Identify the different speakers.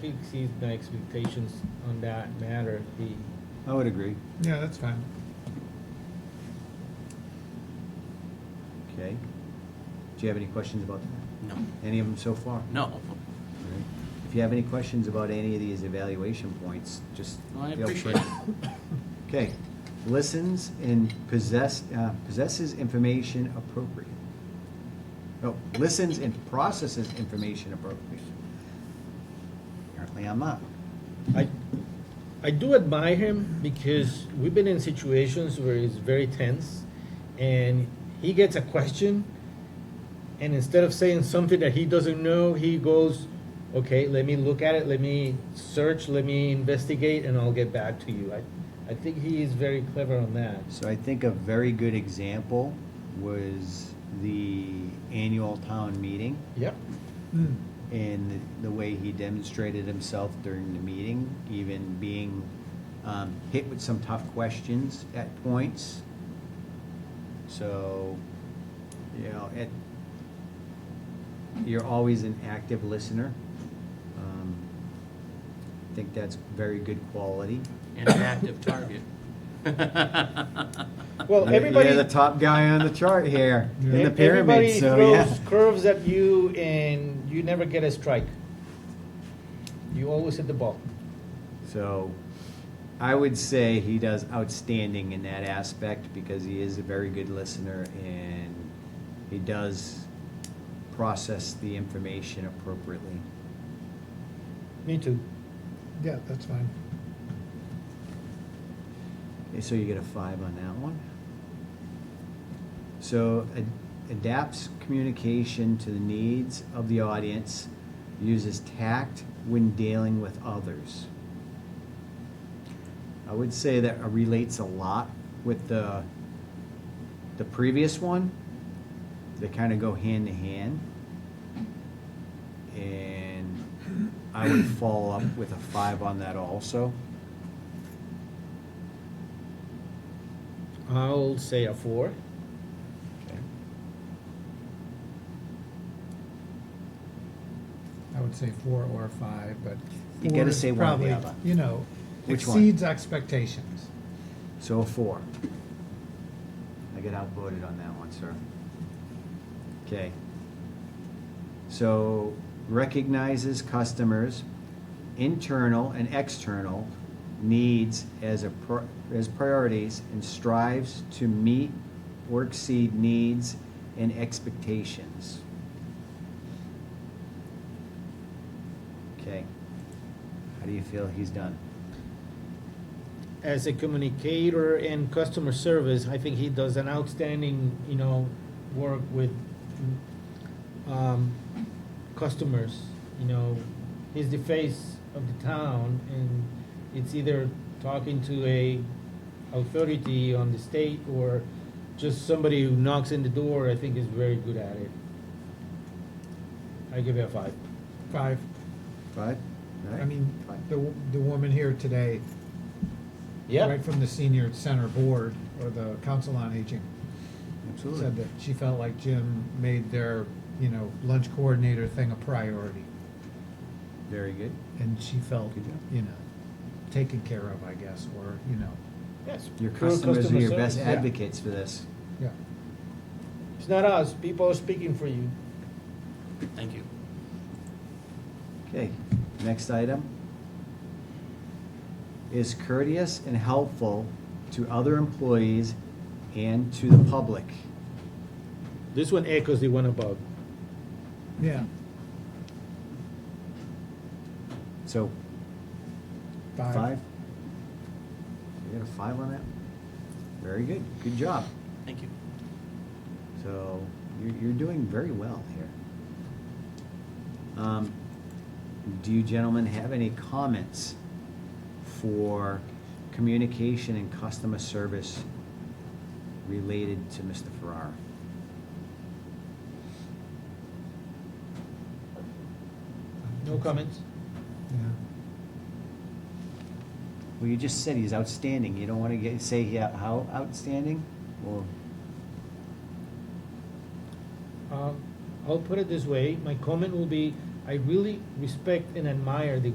Speaker 1: He exceeds my expectations on that matter. He,
Speaker 2: I would agree.
Speaker 3: Yeah, that's fine.
Speaker 2: Okay. Do you have any questions about that?
Speaker 4: No.
Speaker 2: Any of them so far?
Speaker 4: No.
Speaker 2: All right. If you have any questions about any of these evaluation points, just.
Speaker 4: No, I
Speaker 2: feel
Speaker 4: appreciate
Speaker 2: free.
Speaker 4: it.
Speaker 2: Okay. Listens and possess, uh, possesses information appropriate. No, listens and processes information appropriate. Apparently I'm not.
Speaker 1: I, I do admire him because we've been in situations where it's very tense, and he gets a question, and instead of saying something that he doesn't know, he goes, "Okay, let me look at it. Let me search. Let me investigate, and I'll get back to you." I, I think he is very clever on that.
Speaker 2: So I think a very good example was the annual town meeting.
Speaker 1: Yep.
Speaker 3: Mm.
Speaker 2: and the way he demonstrated himself during the meeting, even being um, hit with some tough questions at points. So, you know, it, you're always an active listener. Um, I think that's very good quality.
Speaker 4: And an active target.
Speaker 1: Well,
Speaker 2: You're-
Speaker 1: everybody.
Speaker 2: You're the top guy on the chart here, in the
Speaker 1: E- everybody
Speaker 2: pyramid, so yeah.
Speaker 1: throws curves at you, and you never get a strike. You always hit the ball.
Speaker 2: So I would say he does outstanding in that aspect because he is a very good listener and he does process the information appropriately.
Speaker 1: Me too.
Speaker 3: Yeah, that's fine.
Speaker 2: Okay, So you get a five on that one. So ad- adapts communication to the needs of the audience, uses tact when dealing with others. I would say that relates a lot with the, the previous one. They kind of go hand to hand. And I would follow up with a five on that also.
Speaker 1: I'll say a four.
Speaker 2: Okay.
Speaker 3: I would say four or five, but.
Speaker 2: You
Speaker 3: four
Speaker 2: gotta
Speaker 3: is
Speaker 2: say one or the
Speaker 3: probably,
Speaker 2: other.
Speaker 3: You know,
Speaker 2: Which one?
Speaker 3: exceeds expectations.
Speaker 2: So a four. I get outvoted on that one, sir. Okay. So recognizes customers, internal and external needs as a, pr- as priorities and strives to meet or exceed needs and expectations. Okay. How do you feel he's done?
Speaker 1: As a communicator and customer service, I think he does an outstanding, you know, work with um, customers. You know, he's the face of the town, and it's either talking to a authority on the state or just somebody who knocks in the door. I think is very good at it. I give it a five.
Speaker 3: Five,
Speaker 2: Five? All
Speaker 3: I
Speaker 2: right.
Speaker 3: mean,
Speaker 2: Five.
Speaker 3: the, the woman here today,
Speaker 1: Yeah.
Speaker 3: right from the senior center board or the council on aging,
Speaker 2: Absolutely.
Speaker 3: said that she felt like Jim made their, you know, lunch coordinator thing a priority.
Speaker 2: Very good.
Speaker 3: And she felt,
Speaker 2: Good job.
Speaker 3: you know, taken care of, I guess, or, you know,
Speaker 1: Yes.
Speaker 2: Your
Speaker 1: Pure
Speaker 2: customers are
Speaker 1: customer
Speaker 2: your best
Speaker 1: service.
Speaker 2: advocates for this.
Speaker 3: yeah.
Speaker 1: It's not us. People are speaking for you.
Speaker 4: Thank you.
Speaker 2: Okay, next item. Is courteous and helpful to other employees and to the public.
Speaker 1: This one echoes the one above.
Speaker 3: Yeah.
Speaker 2: So,
Speaker 3: Five.
Speaker 2: five? You got a five on that? Very good, good job.
Speaker 4: Thank you.
Speaker 2: So, you're, you're doing very well here. Um, Do you gentlemen have any comments for communication and customer service related to Mr. Farrar?
Speaker 1: No comments?
Speaker 3: Yeah.
Speaker 2: Well, you just said he's outstanding. You don't want to get, say he- how outstanding? Well,
Speaker 1: Um, I'll put it this way, my comment will be, I really respect and admire the